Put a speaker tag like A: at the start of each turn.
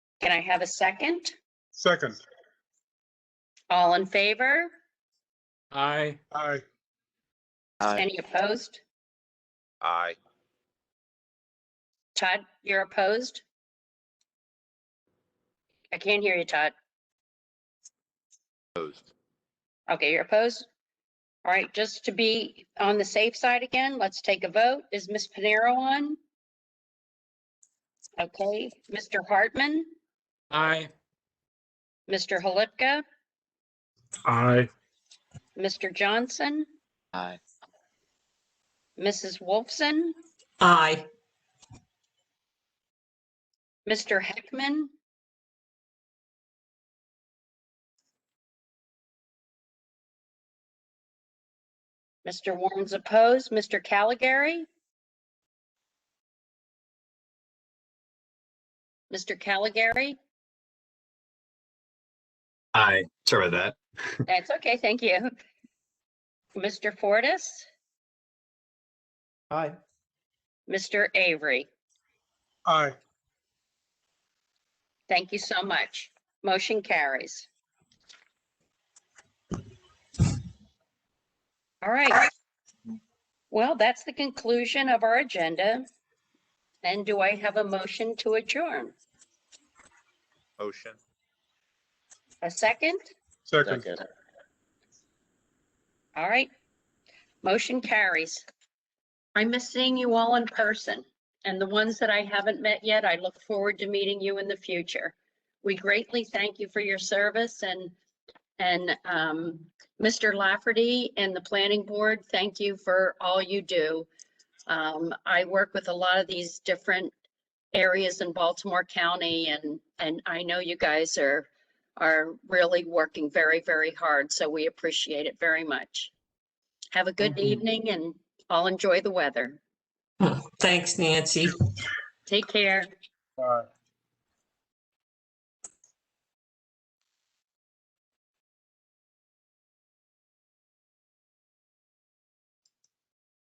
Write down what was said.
A: Can I have a second?
B: Second,
A: All in favor?
C: Aye.
B: aye,
D: Aye.
A: Any opposed?
E: Aye.
A: Todd, you're opposed? I can't hear you, Todd.
D: Opposed.
A: Okay, you're opposed? All right, just to be on the safe side again, let's take a vote. Is Ms. Panero on? Okay, Mr. Hartman,
C: Aye.
A: Mr. Halipka,
C: Aye.
A: Mr. Johnson,
D: Aye.
A: Mrs. Wolfson,
F: Aye.
A: Mr. Heckman. Mr. Warren's opposed. Mr. Caligari? Mr. Caligari?
G: Aye. Sorry about that.
A: That's okay, thank you. Mr. Fortis?
H: Aye.
A: Mr. Avery?
B: aye.
A: Thank you so much. Motion carries. All right. Well, that's the conclusion of our agenda. And do I have a motion to adjourn?
E: Motion.
A: A second?
B: Second,
D: Second.
A: All right. Motion carries. I miss seeing you all in person. And the ones that I haven't met yet, I look forward to meeting you in the future. We greatly thank you for your service and, and um, Mr. Lafferty and the planning board, thank you for all you do. Um, I work with a lot of these different areas in Baltimore County and, and I know you guys are are really working very, very hard, so we appreciate it very much. Have a good
F: Mhm.
A: evening and all enjoy the weather.
F: Thanks, Nancy.
A: Take care.
B: aye.